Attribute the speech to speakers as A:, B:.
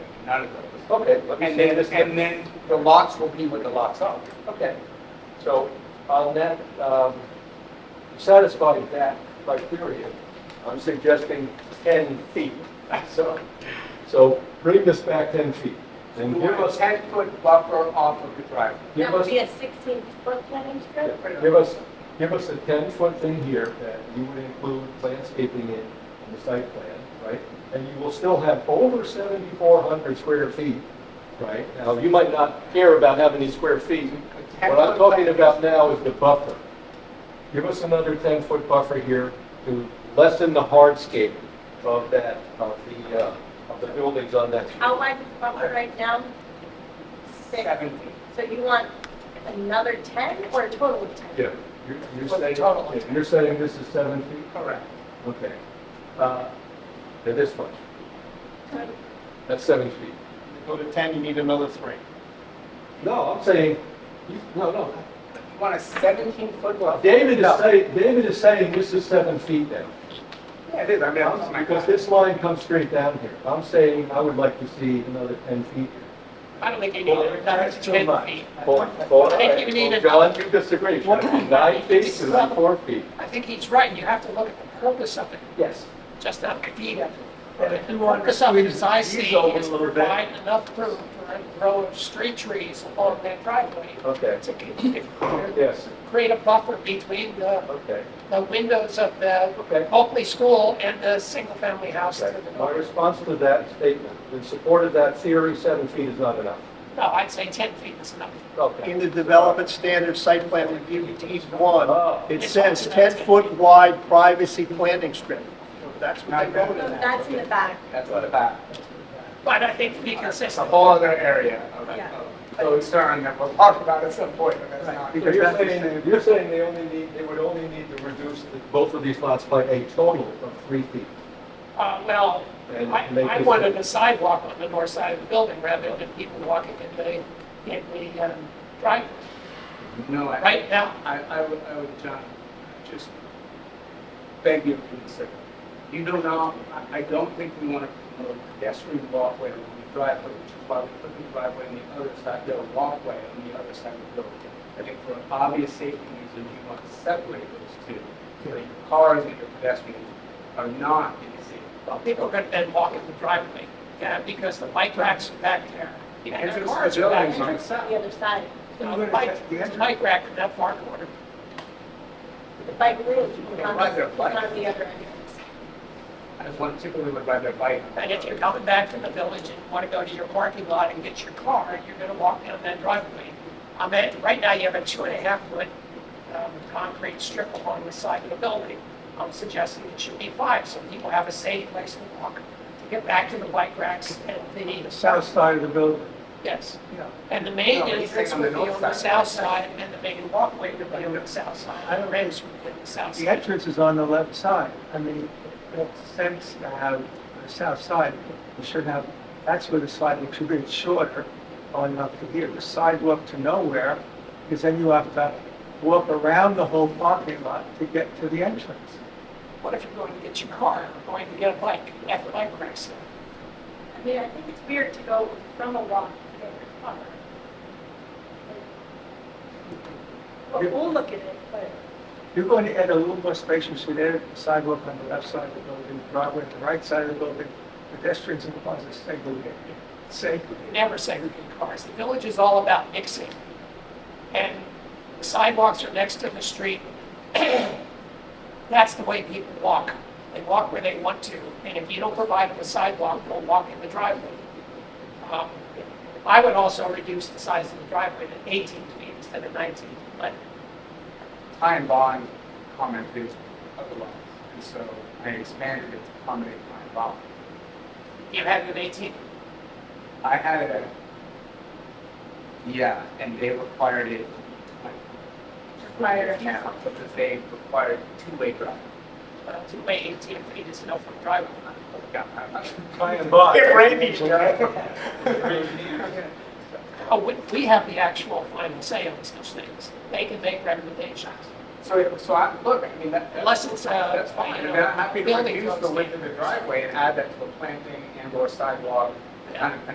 A: out of those.
B: Okay, let me
A: And
B: see
A: then,
B: this.
A: and then,
B: The lots will be what the lots are. Okay. So on that, um, satisfying that criteria, I'm suggesting 10 feet. So, so
C: Bring this back ten feet and
A: you
C: give
A: want a
C: us,
A: ten-foot buffer off of the driveway.
C: give
D: That would
C: us,
D: be a 16-foot planting strip? or-
C: give us, give us a ten foot thing here that you would include landscaping in, in the site plan, right? And you will still have over seventy-four hundred square feet, right? Now, you might not care about having these square feet. What I'm talking about now is the buffer. Give us another ten foot buffer here to lessen the hardscape of that, of the, uh, of the buildings on that. street.
D: How wide is the buffer right now? Six.
A: Seven feet.
D: So you want another 10 or a total of 10?
C: Yeah, you're, you're
A: For the
C: saying,
A: total.
C: yeah, you're saying this is seven feet?
A: Correct.
C: Okay. Uh, They're this much, that's seven feet.
A: Go to ten, you need another three.
C: No, I'm saying, you- no, no.
A: You want a seventeen-foot buffer?
C: David is
A: No.
C: saying, David is saying this is seven feet now.
A: Yeah, it is, I mean, I'm just-
C: Because this line comes straight down here. I'm saying I would like to see another ten feet.
E: I don't think you need it, that's ten feet.
C: Four, four.
E: I think you need a-
C: John, you disagree. Nine feet to four feet.
E: I think he's right, you have to look at the purpose of it,
B: yes.
E: just not the feet of it. And if the purpose of it, as I see, is to provide enough room for a row of street trees along that driveway
C: Okay,
E: to c-
C: yes,
E: create a buffer between the,
C: okay,
E: the windows of the
C: okay.
E: Oakley School and the single-family house to
C: Okay.
E: the
C: My
E: north.
C: response to that statement, in support of that theory, seven feet is not enough.
E: No, I'd say ten feet is enough.
C: Okay.
F: In the development standard site plan review, deed one,
C: Oh,
F: it says 10-foot wide privacy planting strip. That's what they
D: So
F: voted on.
D: that's in the back,
A: That's what about,
E: But I think to be
A: it's a
E: consistent,
A: whole other area Oh, of,
D: Yeah.
A: of concern that we'll talk about at some point, but that's not.
C: So you're saying, you're saying they only need, they would only need to reduce the- both of these lots by a total of three feet?
E: uh, well,
C: And
E: I,
C: make
E: I
C: this-
E: wanted a sidewalk on the north side of the building rather than people walking in the, in the um, driveway.
A: No, I.
E: Right now,
A: I, I would, I would, John, just beg you to consider. You do not, I, I don't think we want to promote pedestrian walkway on the driveway, which is why we put the driveway on the other side, the walkway on the other side of the building. I think for obvious safety reasons, you want to separate those two, so that your cars and your pedestrians are not in the same.
E: well, people are going to then walk in the driveway, yeah, because the bike racks are back there.
A: The
E: and the
A: entrance
E: cars
A: to the
E: are back
A: building
E: there.
A: on
D: entrance on the other side,
E: Now, The bike, the bike rack in that far corner.
D: the bike route is on
A: Right there,
D: the,
A: bike.
D: on the other entrance.
A: As one typically would ride their bike.
E: And if you're coming back from the village and want to go to your parking lot and get your car, you're going to walk down that driveway. I mean, right now you have a two and a half foot um, concrete strip along the side of the building. I'm suggesting it should be five, so people have a safe place to walk to get back to the bike racks and the,
F: South side of the building.
E: yes.
A: Yeah.
E: And the main
A: No, he's
E: entrance
A: saying on the
E: would be
A: north
E: on the
A: side.
E: south side and the main walkway would be on the south side. I don't raise would be on the south
F: The
E: side.
F: entrance is on the left side. I mean, it makes sense to have the south side. We should have, that's where the sidewalk should be It's shorter on up to here. The sidewalk to nowhere, because then you have to walk around the whole parking lot to get to the entrance.
E: What if you're going to get your car or going to get a bike at the bike racks?
D: I mean, I think it's weird to go from a walk to a car. Well, we'll look at it, but
F: You're going to add a little more spacious to there, sidewalk on the left side of the building, driveway on the right side of the building, pedestrians and cars are segregated. Segregated.
E: never segregate cars. The village is all about mixing. And the sidewalks are next to the street. That's the way people walk. They walk where they want to, and if you don't provide them a sidewalk, they'll walk in the driveway. Um, I would also reduce the size of the driveway to 18 feet instead of 19, but
A: Ty and Bond commented otherwise, and so I expanded it to accommodate Ty and Bond.
E: you have an 18.
A: I had a, yeah, and they required it.
D: prior to
A: Yeah,
D: now,
A: Because they required two-way drive.
E: uh, Two-way 18 feet is enough for driveway.
A: Yeah, I-
C: By and by.
A: Get ready,
E: Oh, we- We have the actual final say on such things. They can make recommendations.
A: So, so I, look, I mean, that.
E: Unless it's, uh,
A: That's fine, and I'm happy to
E: building
A: reduce the width of the driveway and add that to a planting and or sidewalk, kind of